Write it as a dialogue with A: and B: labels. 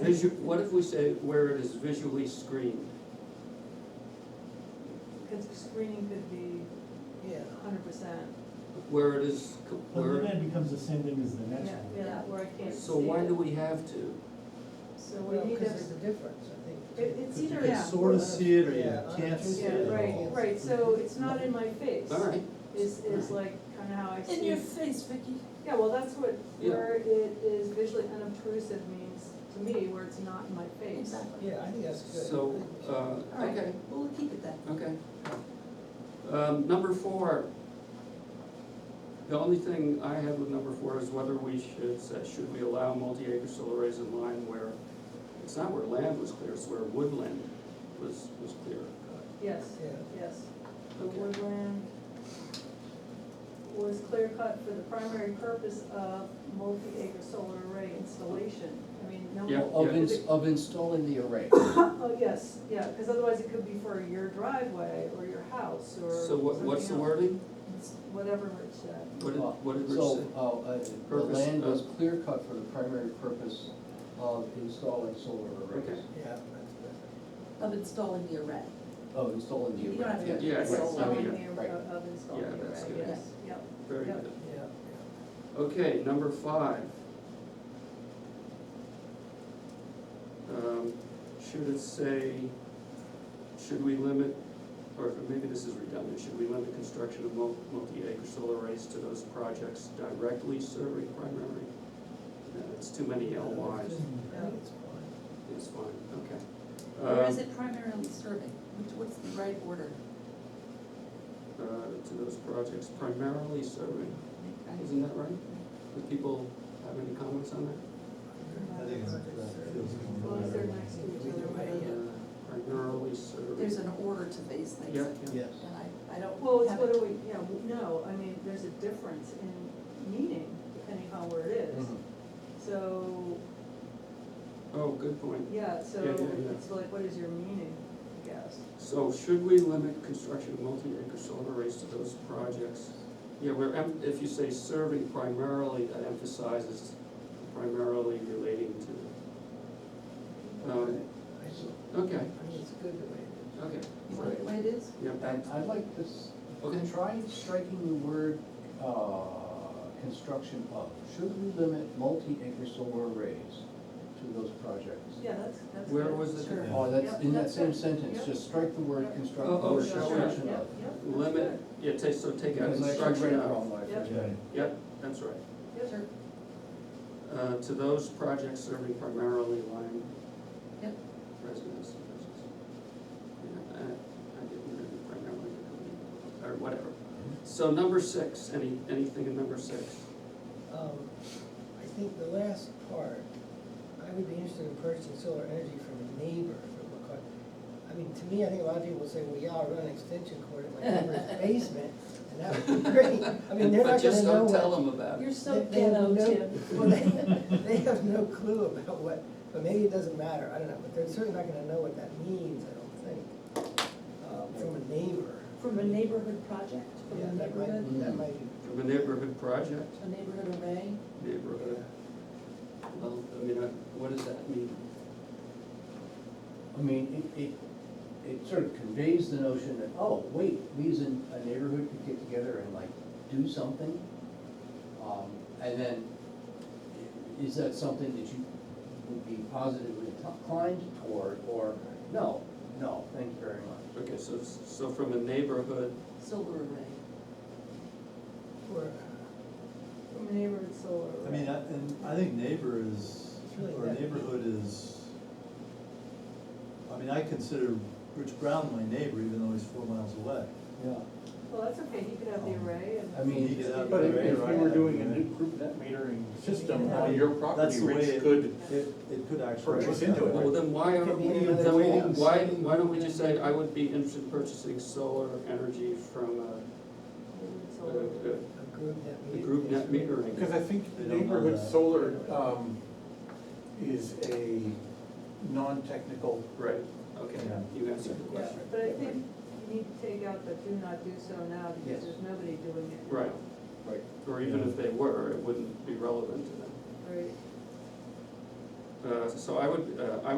A: visu, what if we say where it is visually screened?
B: Because screening could be
C: Yeah.
B: hundred percent,
A: Where it is, co-
D: But then
A: where,
D: that becomes the same thing as the
B: yeah,
D: next one.
B: yeah, where I can't see it.
A: so why do we have to?
B: So
C: Well,
B: we need
C: because there's
B: to,
C: a difference, I think.
B: it, it's either,
E: You
B: yeah,
E: can sort of see it or you
C: Yeah.
E: can't see
B: yeah,
E: it at
B: right,
E: all.
B: right, so it's not in my face,
A: All right,
B: is, is like kinda how I see.
F: In your face, Vicky.
B: Yeah, well, that's what,
A: Yeah.
B: where it is visually unobtrusive means to me, where it's not in my face.
C: Yeah, I think that's good.
A: so,
F: All
A: uh,
F: right,
A: okay,
F: we'll keep it that.
A: okay. Um, number four. The only thing I have with number four is whether we should, say, should we allow multi-acre solar arrays in line where, it's not where land was clear, it's where woodland was, was clear.
B: Yes,
C: Yeah,
B: yes, the
A: Okay.
B: woodland was clear cut for the primary purpose of multi-acre solar array installation. I mean, no.
A: Yeah.
G: Of ins, of installing the array.
B: Oh, yes, yeah, because otherwise it could be for your driveway or your house or
A: So what, what's the
B: something else.
A: wording?
B: It's Whatever Rich said.
A: What did, what did Rich
G: So,
A: say?
G: uh, uh, the
A: Purpose
G: land was
A: of-
G: clear cut for the primary purpose of installing solar
A: Okay.
G: arrays.
C: yeah, that's better.
F: Of installing the array.
G: Oh, installing the
F: You
G: array.
F: don't have to.
A: Yeah, yeah,
F: It's
A: right.
F: all-
A: I mean,
B: Installing the,
G: right.
B: of installing
A: Yeah,
B: the
A: that's
B: array,
A: good.
B: yes, yep.
A: Very
B: Yeah.
A: good.
C: Yeah, yeah.
A: Okay, number five. Um, Should it say, should we limit, or maybe this is redundant, should we limit construction of mul- multi-acre solar arrays to those projects directly serving primary? No, It's too many LYs,
C: I think it's fine.
A: it's fine, okay.
F: Or is
A: Um,
F: it primarily serving? Which- What's the right order?
A: uh, To those projects primarily serving, isn't that right? Do people have any comments on that?
E: I think it's- that feels
B: As long as they're
E: more-
B: next to each other, right?
C: Yeah.
A: Uh, Primarily serving.
F: There's an order to these things.
A: Yeah, yeah.
G: Yes.
F: And I, I don't.
B: Well, it's
F: have
B: whether
F: it.
B: we, yeah, w- no, I mean, there's a difference in meaning depending on where it
A: Mm-hmm.
B: is.
G: Mhm.
B: So,
A: Oh, good point.
B: yeah, so
A: Yeah, yeah, yeah.
B: it's like, what is your meaning, I guess?
A: So should we limit construction of multi-acre solar arrays to those projects? Yeah, where, em- if you say serving primarily, that emphasizes primarily relating to. Um,
C: I think-
A: Okay,
C: I think it's good the way it is.
A: okay,
F: You want it the way it is?
A: yeah,
G: And I'd like this,
A: Okay.
G: try striking the word, uh, construction of. Should we limit multi-acre solar arrays to those projects?
B: Yeah, that's, that's.
A: Where
B: good,
A: was the-
B: sure.
E: Yeah.
G: Oh, that's,
B: Yep,
G: in that
B: that's
G: same
B: it.
G: sentence,
B: Yep.
G: just strike the word
B: Yep.
G: construct,
A: Oh, oh,
G: word
A: sure,
G: construction
B: Yep,
G: of.
B: yep, that's
A: limit,
B: good.
A: yeah, take, so take out
G: Because I actually read
A: construction
G: it
A: of,
G: wrong when I
B: Yep.
G: first read
E: Yeah.
G: it.
A: yep, that's right.
B: Yep.
F: Sure.
A: Uh, to those projects serving primarily Lyme
F: Yep.
A: residents. Yeah, I, I didn't really primarily, or whatever.
C: Mm-hmm.
A: So number six, any, anything in number six?
C: Um, I think the last part, I would be interested in purchasing solar energy from a neighbor if it were cut. I mean, to me, I think a lot of people would say, well, yeah, I'll run an extension cord in my neighbor's basement, and that would be great. I mean, they're
A: But
C: not gonna
A: just
C: know
A: don't tell
C: what.
A: them about it.
B: You're so
C: they- they
B: ghetto,
C: have no-
B: Tim.
C: Well, they, they have no clue about what, but maybe it doesn't matter, I don't know, but they're certainly not gonna know what that means, I don't think, um, from a neighbor.
F: From a neighborhood project, from
C: Yeah,
F: a
C: that might,
F: neighborhood,
C: that might be,
A: From a neighborhood project,
F: a neighborhood array.
A: neighborhood,
C: yeah,
A: well, I mean, I- what does that mean?
G: I mean, it, it, it sort of conveys the notion that, oh, wait, we as an- a neighborhood could get together and like do something. Um, and then, i- is that something that you would be positively inclined toward, or, no, no, thank you very much.
A: Okay, so, so from a neighborhood,
F: Solar array.
C: or,
B: From a neighborhood solar array.
E: I mean, I, and I think neighbor is,
C: It's really
E: or
C: that-
E: neighborhood is, I mean, I consider Rich Brown my neighbor, even though he's four miles away.
G: Yeah.
B: Well, that's okay, he could have
E: Um,
B: the array and.
G: I mean,
E: You get out
H: But if,
E: there,
H: if
E: right?
H: you were doing a new group net metering system
C: Yeah.
H: on your
E: That's
H: property,
E: the way
H: Rich
E: it-
H: could,
E: It, it could actually.
H: Purchase
E: work that
H: into it.
E: way.
A: well, then why are,
C: Could be
A: we-
C: another
A: then
C: way
A: why,
C: of
A: why,
C: saying-
A: why don't we just say, I would be interested in purchasing solar energy from a,
B: neighborhood
A: a-
B: solar array.
A: a
C: a group net
A: The
C: meter.
A: group net metering.
H: because I think
E: They don't know
H: neighborhood
E: that.
H: solar, um, is a non-technical
A: Right, okay,
H: Yeah.
A: you answered the
B: Yeah,
A: question.
B: but I think you need to take out the do not do so now because
G: Yes.
B: there's nobody doing it.
A: Right,
G: Right.
A: or even if they were, it wouldn't be relevant to them.
B: Right.
A: Uh, so I would, uh, I would